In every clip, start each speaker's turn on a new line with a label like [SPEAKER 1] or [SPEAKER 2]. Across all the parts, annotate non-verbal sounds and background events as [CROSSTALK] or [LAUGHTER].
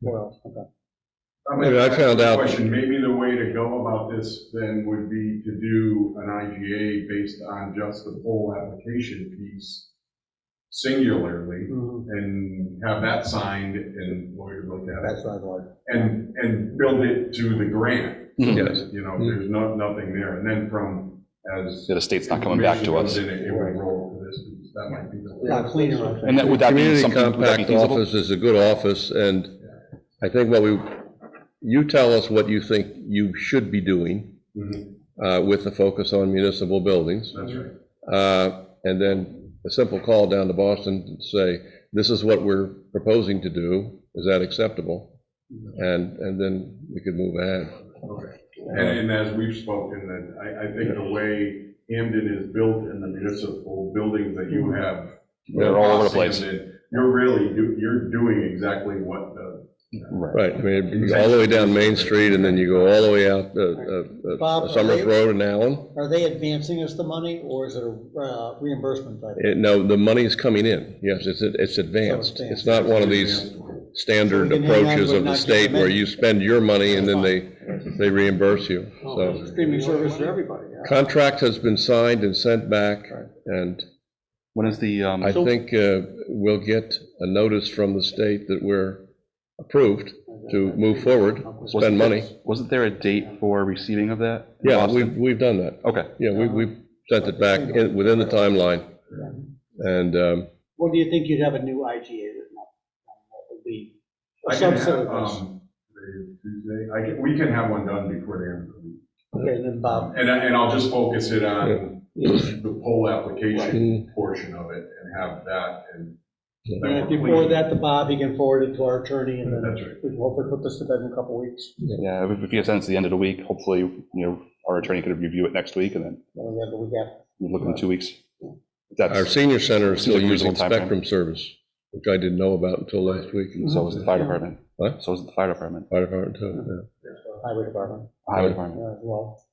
[SPEAKER 1] Well, okay.
[SPEAKER 2] Maybe I found out-
[SPEAKER 3] Question, maybe the way to go about this then would be to do an IGA based on just the whole application piece singularly
[SPEAKER 1] Mhm.
[SPEAKER 3] and have that signed and lawyers look at it
[SPEAKER 1] That's what I'd like.
[SPEAKER 3] and, and build it to the grant.
[SPEAKER 4] Mm-hmm.
[SPEAKER 2] Yes.
[SPEAKER 3] You know, there's no, nothing there. And then from, as.
[SPEAKER 4] The state's not coming back to us.
[SPEAKER 3] information comes in, It would roll to this piece. That might be the. way.
[SPEAKER 1] Yeah, cleaner, I think.
[SPEAKER 4] And that, would that be
[SPEAKER 2] Community
[SPEAKER 4] something, would that be
[SPEAKER 2] Compact
[SPEAKER 4] feasible?
[SPEAKER 2] Office is a good office, and I think what we, you tell us what you think you should be doing
[SPEAKER 3] Mhm,
[SPEAKER 2] uh, with the focus on municipal buildings.
[SPEAKER 3] That's right.
[SPEAKER 2] Uh, And then a simple call down to Boston to say, this is what we're proposing to do, is that acceptable? And, and then we could move ahead. Um,
[SPEAKER 3] Okay. And, and as we've spoken, that I, I think the way Hamden is built and the municipal buildings that you have.
[SPEAKER 4] They're all over the place.
[SPEAKER 3] Hamden, You're really, do- you're doing exactly what the,
[SPEAKER 2] Right, I mean, you go all the way down Main Street, and then you go all the way out uh, uh,
[SPEAKER 1] Bob,
[SPEAKER 2] uh,
[SPEAKER 1] are
[SPEAKER 2] Summers
[SPEAKER 1] they-
[SPEAKER 2] Road and Allen.
[SPEAKER 1] Are they advancing us the money or is it a uh, reimbursement type?
[SPEAKER 2] It- No, the money's coming in, yes, it's, it's advanced. It's not one of these standard
[SPEAKER 1] So we can hang on,
[SPEAKER 2] approaches
[SPEAKER 1] but
[SPEAKER 2] of the
[SPEAKER 1] not get
[SPEAKER 2] state
[SPEAKER 1] them
[SPEAKER 2] where
[SPEAKER 1] in.
[SPEAKER 2] you spend your money and then they, they reimburse you, so.
[SPEAKER 1] Oh, Streaming service for everybody, yeah.
[SPEAKER 2] Contract has been signed and sent back, and
[SPEAKER 4] When is the, um,
[SPEAKER 2] I think uh, we'll get a notice from the state that we're approved to move forward,
[SPEAKER 4] wasn't
[SPEAKER 2] spend
[SPEAKER 4] there-
[SPEAKER 2] money.
[SPEAKER 4] Wasn't there a date for receiving of that? in
[SPEAKER 2] Yeah,
[SPEAKER 4] Boston?
[SPEAKER 2] we've, we've done that.
[SPEAKER 4] Okay,
[SPEAKER 2] Yeah,
[SPEAKER 1] Uh-huh.
[SPEAKER 2] we, we sent it back in- within the timeline. And um,
[SPEAKER 1] Well, do you think you'd have a new IGA written up? That would be a
[SPEAKER 3] I can
[SPEAKER 1] subset
[SPEAKER 3] have,
[SPEAKER 1] of this.
[SPEAKER 3] um, the Tuesday, I can, we can have one done before the end of the week.
[SPEAKER 1] Okay, and then Bob,
[SPEAKER 3] And I, and I'll just focus it on the poll
[SPEAKER 2] Right.
[SPEAKER 3] application portion of it and have that and.
[SPEAKER 2] And
[SPEAKER 1] and
[SPEAKER 3] then
[SPEAKER 1] if
[SPEAKER 3] we're
[SPEAKER 1] you forward
[SPEAKER 3] clean.
[SPEAKER 1] that to Bob, he can forward it to our attorney and then
[SPEAKER 3] That's right.
[SPEAKER 1] we can hopefully put this to bed in a couple weeks.
[SPEAKER 4] yeah, if if you have sense at the end of the week, hopefully, you know, our attorney could review it next week and then
[SPEAKER 1] Then we have the week after.
[SPEAKER 4] we look in two weeks.
[SPEAKER 2] our
[SPEAKER 4] That's,
[SPEAKER 2] senior center is
[SPEAKER 4] Seems
[SPEAKER 2] still
[SPEAKER 4] like a
[SPEAKER 2] using
[SPEAKER 4] reasonable timeframe.
[SPEAKER 2] Spectrum service, which I didn't know about until last week.
[SPEAKER 4] so is the fire department.
[SPEAKER 2] What?
[SPEAKER 4] So is the fire department,
[SPEAKER 2] Fire department, too,
[SPEAKER 1] Highway Department, yeah,
[SPEAKER 2] Right.
[SPEAKER 4] highway department.
[SPEAKER 1] as well.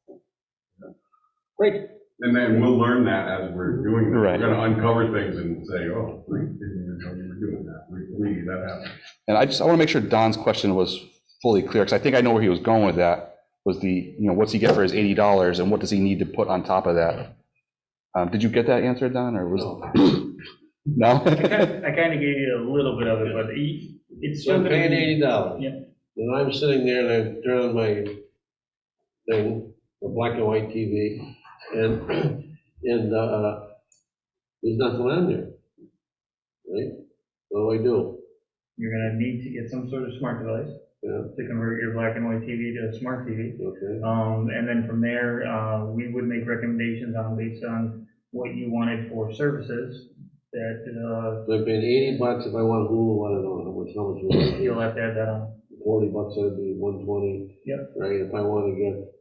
[SPEAKER 1] Great,
[SPEAKER 3] And then we'll learn that as we're doing, that. we're
[SPEAKER 4] Right.
[SPEAKER 3] gonna uncover things and say, oh, we didn't even know you were doing that, we, we, that happened.
[SPEAKER 4] And I just, I want to make sure Don's question was fully clear, because I think I know where he was going with that, was the, you know, what's he get for his eighty dollars and what does he need to put on top of that? Um, did you get that answer, Don, or was?
[SPEAKER 5] I
[SPEAKER 4] [LAUGHS] No?
[SPEAKER 5] kind, I kind of gave you a little bit of it, but he- it's still
[SPEAKER 6] I'm
[SPEAKER 5] gonna
[SPEAKER 6] paying
[SPEAKER 5] be.
[SPEAKER 6] eighty dollars.
[SPEAKER 5] Yeah.
[SPEAKER 6] And I'm sitting there and I'm turning on my thing, the black and white TV, and, [CLEARS THROAT] and, uh, there's nothing on there. Right? What do I do?
[SPEAKER 5] You're gonna need to get some sort of smart device
[SPEAKER 6] Yeah.
[SPEAKER 5] to convert your black and white TV to a smart TV.
[SPEAKER 6] Okay,
[SPEAKER 5] Um, and then from there, uh, we would make recommendations on based on what you wanted for services that,
[SPEAKER 6] so I'm paying eighty bucks if I want Hulu, I don't know, how much, how much
[SPEAKER 5] uh,
[SPEAKER 6] would it
[SPEAKER 5] you'll have to add that on.
[SPEAKER 6] be? Forty bucks, that'd be one twenty.
[SPEAKER 5] Yep.
[SPEAKER 6] Right, if I wanna get.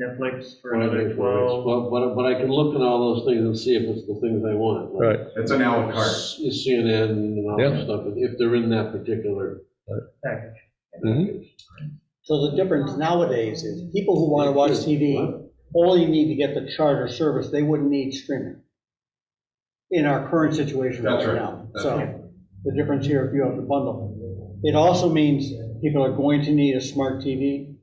[SPEAKER 5] Netflix for
[SPEAKER 6] whatever
[SPEAKER 5] another
[SPEAKER 6] it
[SPEAKER 5] twelve.
[SPEAKER 6] is. But, but, but I can look at all those things and see if it's the things I want.
[SPEAKER 2] yeah. Right,
[SPEAKER 3] It's an à la carte.
[SPEAKER 6] S- CNN and all
[SPEAKER 2] Yeah.
[SPEAKER 6] that stuff, if they're in that particular
[SPEAKER 5] package.
[SPEAKER 6] package.
[SPEAKER 1] so the difference nowadays is people who want to watch TV
[SPEAKER 6] What?
[SPEAKER 1] only need to get the charter service, they wouldn't need streaming in our current situation right
[SPEAKER 3] That's right.
[SPEAKER 1] now.
[SPEAKER 3] That's right.
[SPEAKER 1] So the difference here, if you have the bundle, it also means people are going to need a smart TV.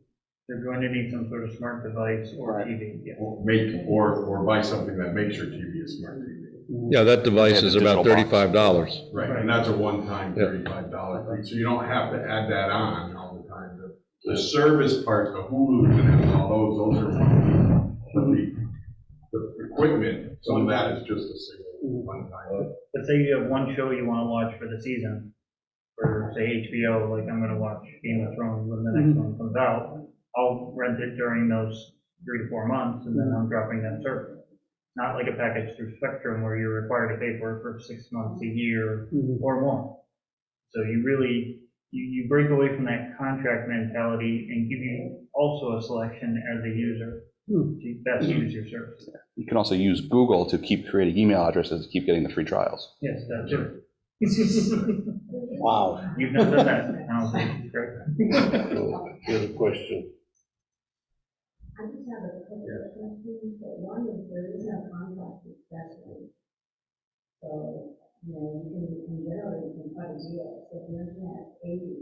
[SPEAKER 5] They're going to need some sort of smart device or
[SPEAKER 1] Right.
[SPEAKER 5] TV, yeah.
[SPEAKER 3] Or Make, or, or buy something that makes your TV a smart TV.
[SPEAKER 2] yeah, that device
[SPEAKER 4] Yeah,
[SPEAKER 2] is
[SPEAKER 4] the
[SPEAKER 2] about
[SPEAKER 4] digital
[SPEAKER 2] thirty-five dollars.
[SPEAKER 3] Right, and that's a one-time
[SPEAKER 2] Yeah.
[SPEAKER 3] thirty-five dollar fee, so you don't have to add that on all the time. The- The service part, the Hulu and all those, those are one fee. But the, the equipment, some of that is just a single one-time.
[SPEAKER 5] Let's say you have one show you want to watch for the season, for say HBO, like I'm gonna watch Game of Thrones when the next one comes out. I'll rent it during those three to four months and then I'm dropping that service. Not like a package through Spectrum where you're required to pay for it for six months, a year
[SPEAKER 3] Mm-hmm.
[SPEAKER 5] or more. So you really, you, you break away from that contract mentality and give you also a selection as a user
[SPEAKER 1] Hmm.
[SPEAKER 5] to best use your service.
[SPEAKER 4] You can also use Google to keep creating email addresses, to keep getting the free trials.
[SPEAKER 5] Yes, that's it.
[SPEAKER 1] Wow.
[SPEAKER 5] You've not done that, I don't think, correct?
[SPEAKER 6] So, Here's a question.
[SPEAKER 7] I just have a couple of questions, but one is there is no contract especially. So, you know, you can, in general, you can cut a deal, so if you're looking at eighty,